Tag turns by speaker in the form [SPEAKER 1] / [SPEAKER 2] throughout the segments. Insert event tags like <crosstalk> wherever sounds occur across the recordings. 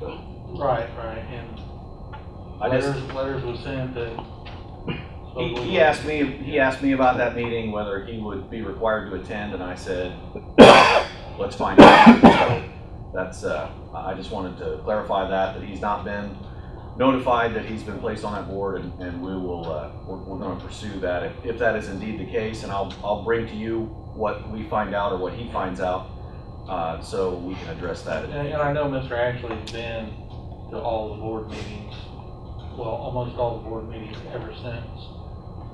[SPEAKER 1] the
[SPEAKER 2] Right, right, and
[SPEAKER 1] I just,
[SPEAKER 2] letters, letters were sent that.
[SPEAKER 1] he,
[SPEAKER 2] Oh,
[SPEAKER 1] he asked me, he asked me about that meeting, whether he would be required to attend, and I said, <coughs> let's find out. So That's, uh, I I just wanted to clarify that, that he's not been notified that he's been placed on that board, and, and we will, uh, we're, we're gonna pursue that. If, if that is indeed the case, and I'll, I'll bring to you what we find out or what he finds out, uh, so we can address that.
[SPEAKER 2] And, and I know Mr. Ashley's been to all the board meetings, well, almost all the board meetings ever since.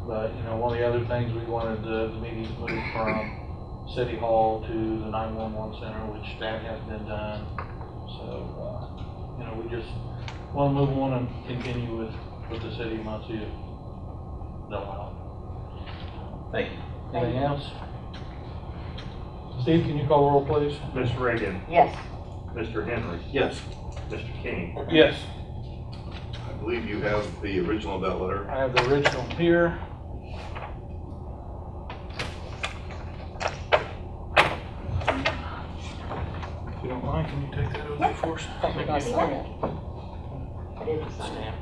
[SPEAKER 2] But, you know, one of the other things we wanted the, the meetings moved from City Hall to the nine-one-one center, which that has been done. So, uh, you know, we just wanna move on and continue with, with the city of Muncie. if They'll allow.
[SPEAKER 1] Thank you.
[SPEAKER 2] it. Anything else? Steve, can you call roll, please?
[SPEAKER 3] Ms. Reagan,
[SPEAKER 4] Yes.
[SPEAKER 3] Mr. Henry,
[SPEAKER 2] Yes.
[SPEAKER 3] Mr. King.
[SPEAKER 2] Yes.
[SPEAKER 5] I believe you have the original of that letter.
[SPEAKER 2] I have the original here. If you don't mind, can you take that over for us?
[SPEAKER 4] I'm gonna sign it. I didn't sign it.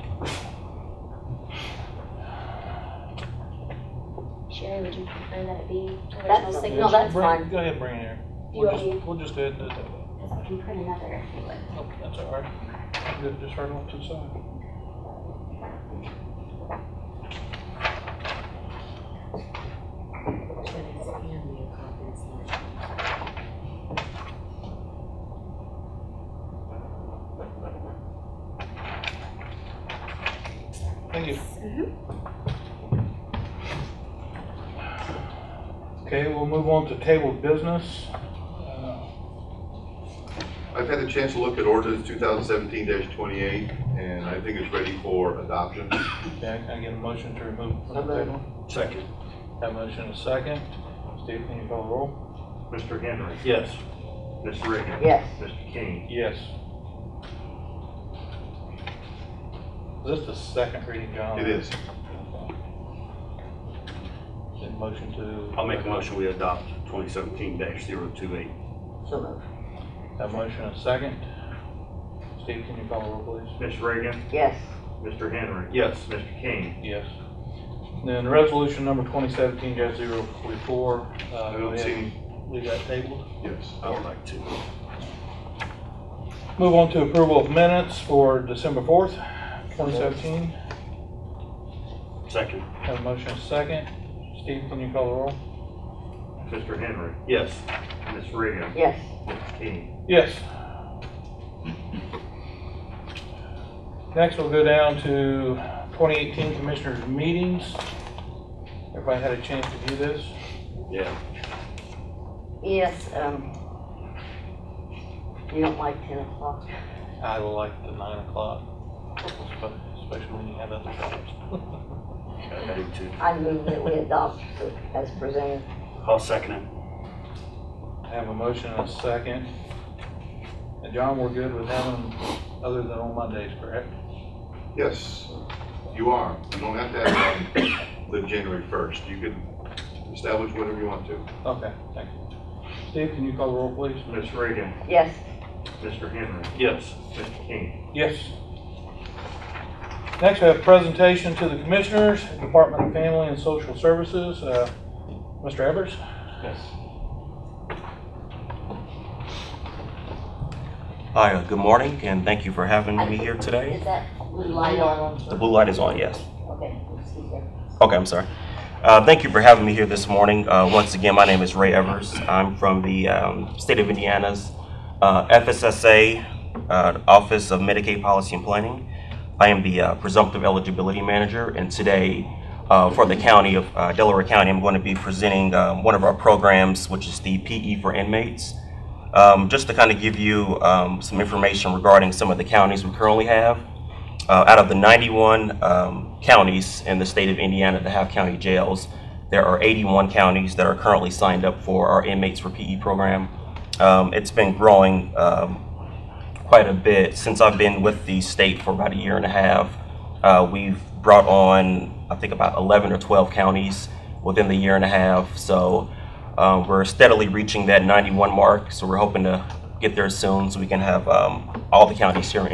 [SPEAKER 6] Sherry, would you prefer that it be original
[SPEAKER 4] That's-
[SPEAKER 6] signature?
[SPEAKER 4] No, that's
[SPEAKER 2] Bring-
[SPEAKER 4] fine.
[SPEAKER 2] Go ahead, bring it here.
[SPEAKER 6] Do you
[SPEAKER 2] We'll
[SPEAKER 6] want me,
[SPEAKER 2] just, we'll just go ahead and do it that way.
[SPEAKER 6] because I can print another if you would.
[SPEAKER 2] Nope, That's all right. Good, Just right off to the side. Thank you. Okay, we'll move on to table business. Uh,
[SPEAKER 5] I've had a chance to look at ordinance two thousand seventeen twenty-eight, and I think it's ready for adoption.
[SPEAKER 2] Yeah, can I get a motion to remove from the table?
[SPEAKER 3] Second.
[SPEAKER 2] That motion is second. Steve, can you call the roll?
[SPEAKER 3] Mr. Henry,
[SPEAKER 2] Yes.
[SPEAKER 3] Ms. Reagan.
[SPEAKER 4] Yes.
[SPEAKER 3] Mr. King.
[SPEAKER 2] Yes. Is this the second reading, John?
[SPEAKER 5] It is.
[SPEAKER 2] Then motion to.
[SPEAKER 7] I'll make a motion, we adopt twenty seventeen 28
[SPEAKER 4] So moved.
[SPEAKER 2] That motion is second. Steve, can you call the roll, please?
[SPEAKER 3] Ms. Reagan,
[SPEAKER 4] Yes.
[SPEAKER 3] Mr. Henry.
[SPEAKER 7] Yes.
[SPEAKER 3] Mr. King.
[SPEAKER 2] Yes. Then resolution number twenty seventeen 44 uh,
[SPEAKER 5] I
[SPEAKER 2] go
[SPEAKER 5] don't see
[SPEAKER 2] ahead
[SPEAKER 5] any,
[SPEAKER 2] and leave that tabled.
[SPEAKER 5] yes.
[SPEAKER 7] I would like to.
[SPEAKER 2] Move on to approval of minutes for December fourth, twenty seventeen.
[SPEAKER 7] Second.
[SPEAKER 2] Have a motion is second. Steve, can you call the roll?
[SPEAKER 3] Mr. Henry,
[SPEAKER 7] Yes.
[SPEAKER 3] Ms. Reagan,
[SPEAKER 4] Yes.
[SPEAKER 3] Mr. King.
[SPEAKER 2] Yes. Next, we'll go down to 2018 Commissioners Meetings. Everybody had a chance to view this?
[SPEAKER 7] Yeah.
[SPEAKER 4] Yes, um. You don't like ten o'clock?
[SPEAKER 2] I like the 9 o'clock, especially when you have other jobs.
[SPEAKER 7] I do too.
[SPEAKER 4] I move that we adopt as presented.
[SPEAKER 7] I'll second it.
[SPEAKER 2] I have a motion and a second. And John, we're good with having them other than on Mondays, correct?
[SPEAKER 5] Yes, you are. You don't have to have it on the January first. You can establish whatever you want to.
[SPEAKER 2] Okay, thank you. Steve, can you call the roll, please?
[SPEAKER 3] Ms. Reagan,
[SPEAKER 4] Yes.
[SPEAKER 3] Mr. Henry,
[SPEAKER 7] Yes.
[SPEAKER 3] Mr. King.
[SPEAKER 2] Yes. Next, we have presentation to the Commissioners, Department of Family and Social Services. Uh, Mr. Evers?
[SPEAKER 3] Yes.
[SPEAKER 8] Hi, uh, good morning, and thank you for having me here
[SPEAKER 4] Is
[SPEAKER 8] today.
[SPEAKER 4] that blue light on?
[SPEAKER 8] The blue light is on, yes.
[SPEAKER 4] Okay, excuse me.
[SPEAKER 8] Okay, I'm sorry. Uh, Thank you for having me here this morning. Uh, Once again, my name is Ray Evers. I'm from the um, state of Indiana's uh, FSSA uh, Office of Medicaid Policy and Planning. I am the uh, presumptive eligibility manager, and today, uh, for the county of uh, Delaware County, I'm going to be presenting um, one of our programs, which is the PE for inmates. Um, Just to kind of give you um, some information regarding some of the counties we currently have. Uh, out of the 91 um, counties in the state of Indiana that have county jails, there are 81 counties that are currently signed up for our inmates for PE program. Um, it's been growing um, quite a bit since I've been with the state for about a year and a half. Uh, we've brought on, I think, about 11 or 12 counties within the year and a half. So um, we're steadily reaching that 91 mark. So we're hoping to get there soon so we can have um, all the counties here in